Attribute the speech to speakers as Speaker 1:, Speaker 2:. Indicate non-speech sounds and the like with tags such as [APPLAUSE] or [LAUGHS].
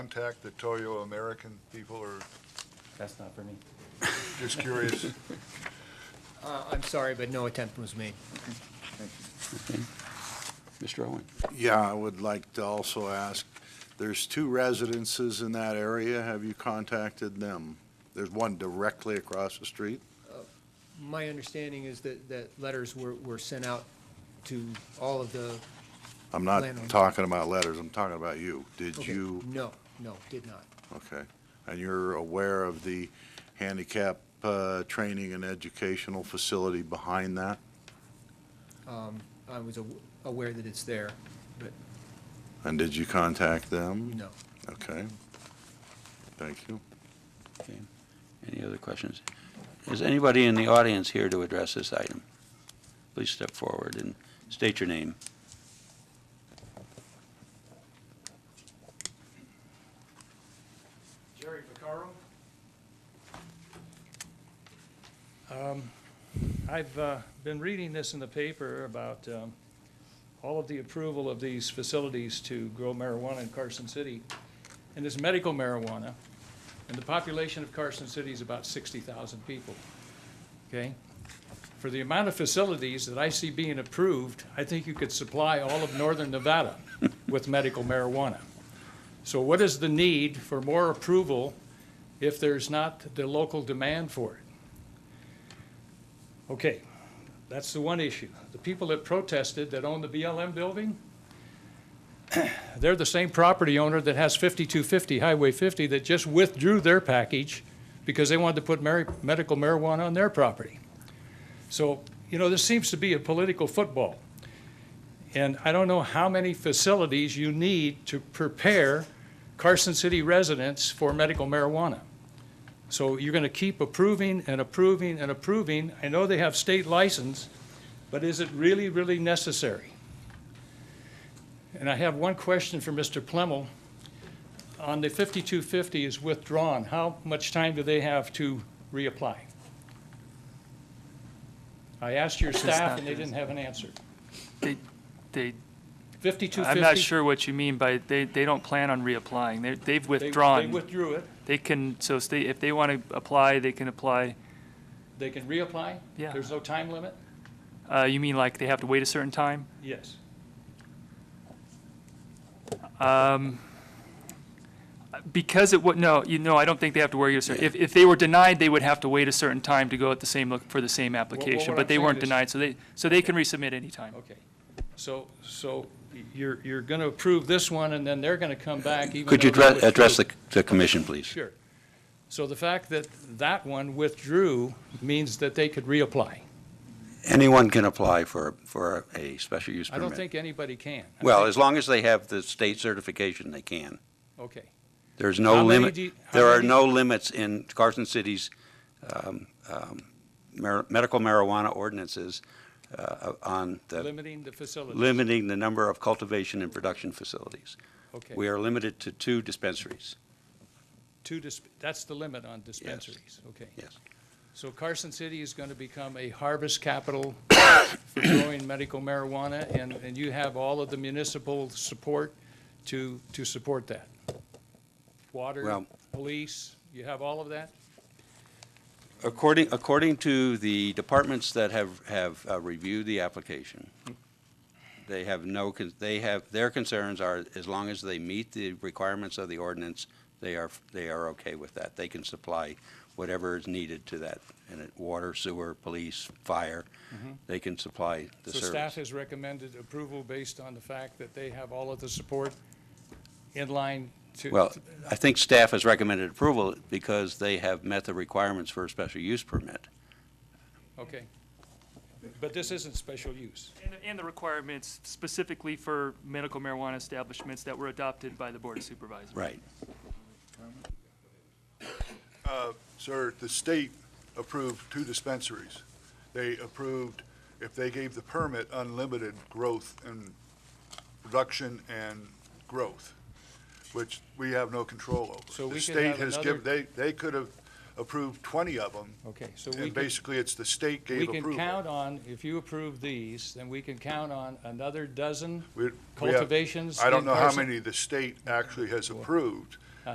Speaker 1: contact the Toyo American people, or
Speaker 2: That's not for me.
Speaker 1: just curious?
Speaker 3: Uh, I'm sorry, but no attempt was made.
Speaker 4: Mr. Owen?
Speaker 5: [LAUGHS] Yeah, I would like to also ask, there's two residences in that area. Have you contacted them? There's one directly across the street.
Speaker 3: My understanding is that, that letters were, were sent out to all of the.
Speaker 5: I'm not
Speaker 3: Landowner.
Speaker 5: talking about letters, I'm talking about you. Did
Speaker 3: okay,
Speaker 5: you,
Speaker 3: No, no, did not.
Speaker 5: okay. And you're aware of the handicap uh, training and educational facility behind that?
Speaker 3: I was aw- aware that it's there, but
Speaker 5: And did you contact them?
Speaker 3: no.
Speaker 5: Okay. Thank you.
Speaker 4: Okay. Any other questions? Is anybody in the audience here to address this item? Please step forward and state your name.
Speaker 6: Jerry Vaccaro. Um, I've uh, been reading this in the paper about um, all of the approval of these facilities to grow marijuana in Carson City, and it's medical marijuana, and the population of Carson City is about 60,000 people, okay? For the amount of facilities that I see being approved, I think you could supply all of northern Nevada with medical marijuana. So what is the need for more approval if there's not the local demand for it? Okay, that's the one issue. The people that protested that own the BLM building, [CLEARS THROAT] they're the same property owner that has 5250 Highway 50 that just withdrew their package because they wanted to put mari- medical marijuana on their property. So, you know, this seems to be a political football. And I don't know how many facilities you need to prepare Carson City residents for medical marijuana. So you're going to keep approving and approving and approving. I know they have state license, but is it really, really necessary? And I have one question for Mr. Plemmel. On the 5250 is withdrawn, how much time do they have to reapply? I asked your
Speaker 7: That's
Speaker 6: staff
Speaker 7: not
Speaker 6: and they
Speaker 7: the-
Speaker 6: didn't have an answer.
Speaker 7: They, they,
Speaker 6: 5250?
Speaker 7: I'm not sure what you mean by, they, they don't plan on reapplying. They, they've
Speaker 6: They- They
Speaker 7: withdrawn.
Speaker 6: withdrew it.
Speaker 7: They can, so stay, if they want to apply, they can apply.
Speaker 6: They can reapply?
Speaker 7: Yeah.
Speaker 6: There's no time limit?
Speaker 7: Uh, you mean like they have to wait a certain time?
Speaker 6: Yes.
Speaker 7: Um, because it would, no, you know, I don't think they have to wait a certain, if, if they were denied, they would have to wait a certain time to go at the same, look for the same application.
Speaker 6: what I'm
Speaker 7: But they
Speaker 6: saying
Speaker 7: weren't
Speaker 6: is-
Speaker 7: denied, so they, so they can resubmit anytime.
Speaker 6: Okay. So, so you're, you're going to approve this one, and then they're going to come back even though.
Speaker 4: Could you
Speaker 6: they
Speaker 4: address, address
Speaker 6: withdrew.
Speaker 4: the, the commission, please?
Speaker 6: Sure. So the fact that that one withdrew means that they could reapply.
Speaker 4: Anyone can apply for, for a special use
Speaker 6: I
Speaker 4: permit.
Speaker 6: don't think anybody can. I
Speaker 4: Well,
Speaker 6: think-
Speaker 4: as long as they have the state certification, they can.
Speaker 6: Okay.
Speaker 4: There's
Speaker 6: How
Speaker 4: no
Speaker 6: many
Speaker 4: limit,
Speaker 6: do you- how
Speaker 4: there are
Speaker 6: many-
Speaker 4: no limits in Carson City's um, um, mar- medical marijuana ordinances uh, on the,
Speaker 6: Limiting the facility.
Speaker 4: limiting the number of cultivation and production facilities.
Speaker 6: Okay.
Speaker 4: We are limited to two dispensaries,
Speaker 6: Two, dis- that's the limit on dispensaries. Okay.
Speaker 4: yes.
Speaker 6: So Carson City is going to become a harvest capital for growing medical marijuana, and, and you have all of the municipal support to, to support that? Water,
Speaker 4: Well-
Speaker 6: police, you have all of that?
Speaker 4: According, according to the departments that have, have uh, reviewed the application, they have no, con- they have, their concerns are, as long as they meet the requirements of the ordinance, they are, they are okay with that. They can supply whatever is needed to that, and it, water, sewer, police, fire, they can supply the
Speaker 6: Mm-hmm. So staff
Speaker 4: service.
Speaker 6: has recommended approval based on the fact that they have all of the support in line to.
Speaker 4: Well, I think staff has recommended approval because they have met the requirements for a special use permit.
Speaker 6: Okay. But this isn't special use.
Speaker 7: And, and the requirements specifically for medical marijuana establishments that were adopted by the Board of Supervisors.
Speaker 4: Right.
Speaker 1: Sir, the state approved two dispensaries. They approved, if they gave the permit, unlimited growth and production and growth, which we have no control over.
Speaker 6: So we
Speaker 1: The
Speaker 6: could
Speaker 1: state
Speaker 6: have
Speaker 1: has
Speaker 6: another-
Speaker 1: given, they, they could have approved 20 of them,
Speaker 6: Okay, so we
Speaker 1: and
Speaker 6: can,
Speaker 1: basically it's the state
Speaker 6: we
Speaker 1: gave
Speaker 6: can
Speaker 1: approval.
Speaker 6: count on, if you approve these, then we can count on another dozen
Speaker 1: We- we have-
Speaker 6: cultivations.
Speaker 1: I don't
Speaker 6: in
Speaker 1: know how
Speaker 6: Carson-
Speaker 1: many the state actually has approved,